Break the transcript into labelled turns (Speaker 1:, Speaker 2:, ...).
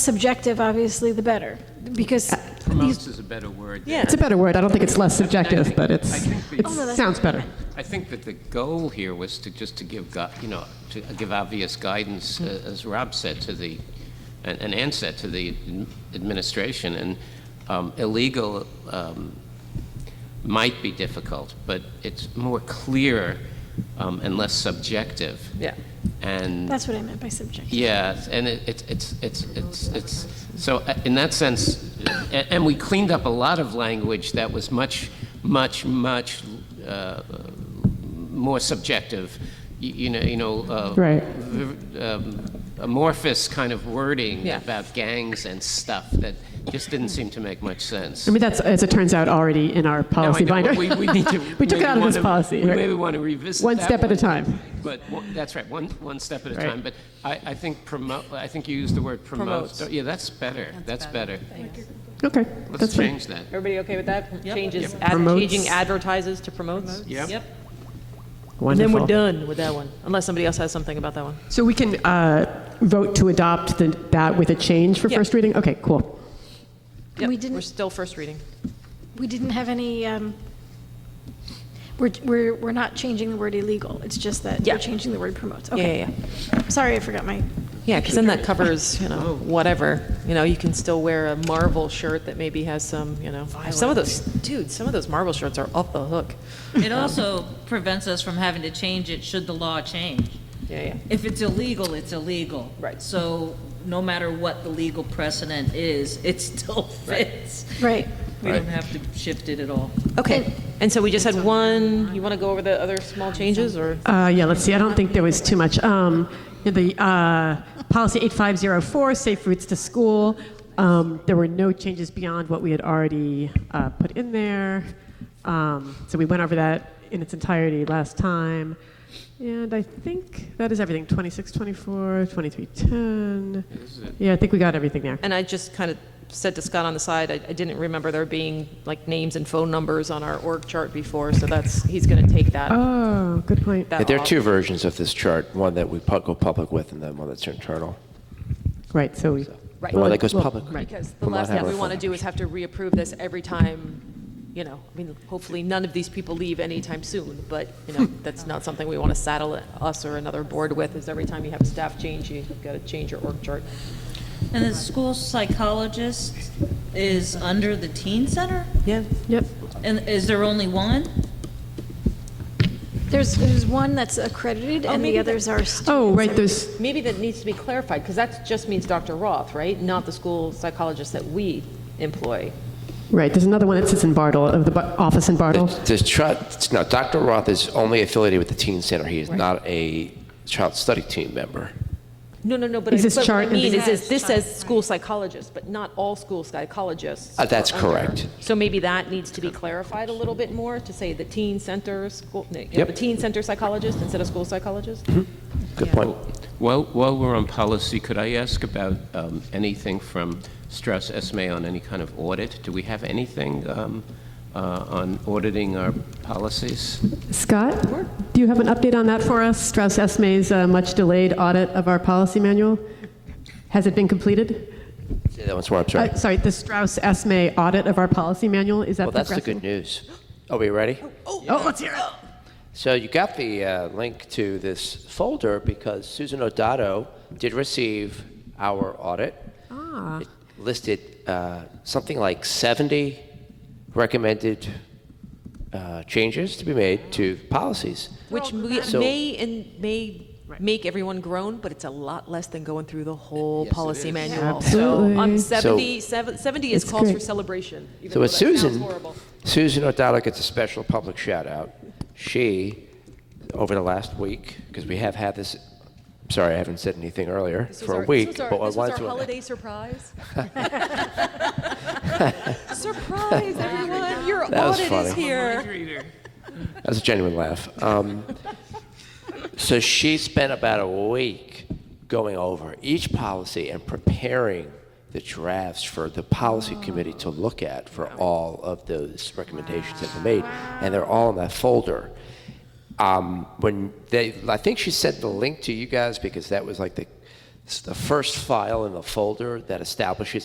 Speaker 1: subjective, obviously, the better, because
Speaker 2: Promotes is a better word. than-
Speaker 3: Yeah, it's a better word. I don't think it's less
Speaker 2: I
Speaker 3: subjective,
Speaker 2: think-
Speaker 3: but
Speaker 2: I
Speaker 3: it's,
Speaker 2: think the-
Speaker 3: it
Speaker 2: Oh, no,
Speaker 1: that's-
Speaker 3: sounds better.
Speaker 2: I think that the goal here was to just to give, gu- you know, to give obvious guidance, uh,
Speaker 3: Mm-hmm.
Speaker 2: as Rob said, to the, and and Ann said, to the adm- administration. And um, illegal um, might be difficult, but it's more clear um, and less subjective.
Speaker 3: Yeah.
Speaker 2: And
Speaker 1: that's what I meant by subjective.
Speaker 2: Yes, and it- it's, it's, it's, it's, it's, so uh, in that sense, a- and we cleaned up a lot of language that was much, much, much uh, more subjective, you you know, you know. uh,
Speaker 3: Right.
Speaker 2: v- um, Amorphous kind of wording
Speaker 3: Yeah.
Speaker 2: about gangs and stuff that just didn't seem to make much sense.
Speaker 3: I mean, that's, as it turns out, already in our
Speaker 2: No, I
Speaker 3: policy
Speaker 2: know,
Speaker 3: binder.
Speaker 2: We, we need to.
Speaker 3: We took it
Speaker 2: maybe
Speaker 3: out of this
Speaker 2: wanna-
Speaker 3: policy.
Speaker 2: We
Speaker 3: right.
Speaker 2: maybe want to revisit
Speaker 3: One
Speaker 2: that
Speaker 3: step at a
Speaker 2: one.
Speaker 3: time.
Speaker 2: But, one- that's right, one, one step at a
Speaker 3: Right.
Speaker 2: time. But I, I think promote, I think you used the word promote.
Speaker 4: Promotes.
Speaker 2: Yeah, that's better, that's better.
Speaker 3: Okay,
Speaker 2: Let's
Speaker 3: that's fine.
Speaker 2: change that.
Speaker 4: Everybody okay with that? Changes, ad-
Speaker 3: Promotes.
Speaker 4: changing advertises to promotes?
Speaker 2: Yep. Yep.
Speaker 4: And then we're
Speaker 3: Wonderful.
Speaker 4: done with that one, unless somebody else has something about that one.
Speaker 3: So we can uh, vote to adopt the- that with a change for
Speaker 4: Yeah.
Speaker 3: first reading? Okay, cool.
Speaker 4: Yep,
Speaker 1: We didn't-
Speaker 4: We're still first reading.
Speaker 1: We didn't have any, um, we're, we're, we're not changing the word illegal, it's just that
Speaker 4: Yeah.
Speaker 1: we're changing the word promotes.
Speaker 4: Yeah,
Speaker 1: Okay.
Speaker 4: yeah,
Speaker 1: Sorry, I forgot my,
Speaker 4: yeah, because then that covers, you know, whatever. You know, you can still wear a Marvel shirt that maybe has some, you know, some of those, dude, some of those Marvel shirts are off the hook.
Speaker 5: It also prevents us from having to change it should the law change.
Speaker 4: Yeah, yeah.
Speaker 5: If it's illegal, it's illegal.
Speaker 4: Right.
Speaker 5: So no matter what the legal precedent is, it still fits.
Speaker 1: right.
Speaker 5: We don't have to shift it at all.
Speaker 4: Okay, and so we just had one, you want to go over the other small changes, or?
Speaker 3: Uh, Yeah, let's see, I don't think there was too much. Um, The uh, policy 8504, safe routes to school, um, there were no changes beyond what we had already uh, put in there. Um, So we went over that in its entirety last time. And I think that is everything, 26, 24, 23, 10. Yeah, I think we got everything there.
Speaker 4: And I just kind of said to Scott on the side, I, I didn't remember there being like names and phone numbers on our org chart before, so that's, he's going to take that.
Speaker 3: Oh, good point.
Speaker 4: that
Speaker 6: Yeah, there are
Speaker 4: off.
Speaker 6: two versions of this chart, one that we pu- go public with and then one that's internal.
Speaker 3: Right, so we.
Speaker 4: Right.
Speaker 6: The one that goes
Speaker 3: Well,
Speaker 6: public.
Speaker 3: right.
Speaker 4: Because the
Speaker 6: Will not
Speaker 4: last
Speaker 6: have
Speaker 4: thing
Speaker 6: our
Speaker 4: we
Speaker 6: phone
Speaker 4: want to do
Speaker 6: numbers.
Speaker 4: is have to reapprove this every time, you know, I mean, hopefully none of these people leave anytime soon, but, you know, that's not something we want to saddle us or another board with, is every time you have a staff change, you've got to change your org chart.
Speaker 5: And the school psychologist is under the teen center?
Speaker 4: Yeah.
Speaker 3: Yep.
Speaker 5: And is there only one?
Speaker 1: There's, there's one that's accredited and the
Speaker 4: maybe
Speaker 1: others are students.
Speaker 3: Oh, right, there's,
Speaker 4: Maybe that needs to be clarified, because that just means Dr. Roth, right? Not the school psychologist that we employ.
Speaker 3: right, there's another one that sits in Bartle, of the bu- office in Bartle.
Speaker 6: The, the chart, no, Dr. Roth is only affiliated with the teen center. He is not a child study team member.
Speaker 4: No, no, no, but I-
Speaker 3: Is this
Speaker 4: but what I
Speaker 3: chart-
Speaker 4: mean
Speaker 3: is
Speaker 4: is, is this says school psychologist, but not all school psychologists.
Speaker 6: Uh, that's
Speaker 4: are under.
Speaker 6: correct.
Speaker 4: So maybe that needs to be clarified a little bit more, to say the teen center, school, you know,
Speaker 6: Yep. Mm-hmm.
Speaker 4: the teen center psychologist instead of school psychologist?
Speaker 6: Good point.
Speaker 2: While, while we're on policy, could I ask about um, anything from Strauss Esme on any kind of audit? Do we have anything um, uh, on auditing our policies?
Speaker 3: Scott, do you have an update on that for us? Strauss Esme's uh, much delayed audit of our policy manual? Has it been completed?
Speaker 6: Say that once more, I'm sorry.
Speaker 3: Uh, sorry, the Strauss Esme audit of our policy manual, is that
Speaker 6: well, that's the
Speaker 3: progressing?
Speaker 6: good news. Are we ready?
Speaker 3: Oh, let's hear it.
Speaker 6: So you got the uh, link to this folder because Susan Odato did receive our audit. Ah. It listed uh, something like 70 recommended uh, changes to be made to policies.
Speaker 4: Which may,
Speaker 6: So-
Speaker 4: may and may make everyone groan, but it's a lot less than going through the whole policy manual. So
Speaker 3: Absolutely.
Speaker 4: I'm 70, seven- 70 is
Speaker 3: It's
Speaker 4: calls for
Speaker 3: great.
Speaker 4: celebration, even
Speaker 6: So
Speaker 4: though
Speaker 6: with
Speaker 4: that sounds
Speaker 6: Susan,
Speaker 4: horrible.
Speaker 6: Susan O'Donnell gets a special public shout out. She, over the last week, because we have had this, I'm sorry, I haven't said anything earlier
Speaker 4: This was
Speaker 6: for
Speaker 4: our-
Speaker 6: a week,
Speaker 4: This was our,
Speaker 6: but I
Speaker 4: this was
Speaker 6: wanted
Speaker 4: our
Speaker 6: to-
Speaker 4: holiday surprise. surprise, everyone! Your
Speaker 6: That was
Speaker 4: audit is
Speaker 6: funny.
Speaker 4: here.
Speaker 6: That was a genuine laugh. Um, so she spent about a week going over each policy and preparing the drafts for the policy committee to look at for all of those recommendations that were made, and they're all in that folder. Um, when they, I think she sent the link to you guys because that was like the It's the first file in the folder that establishes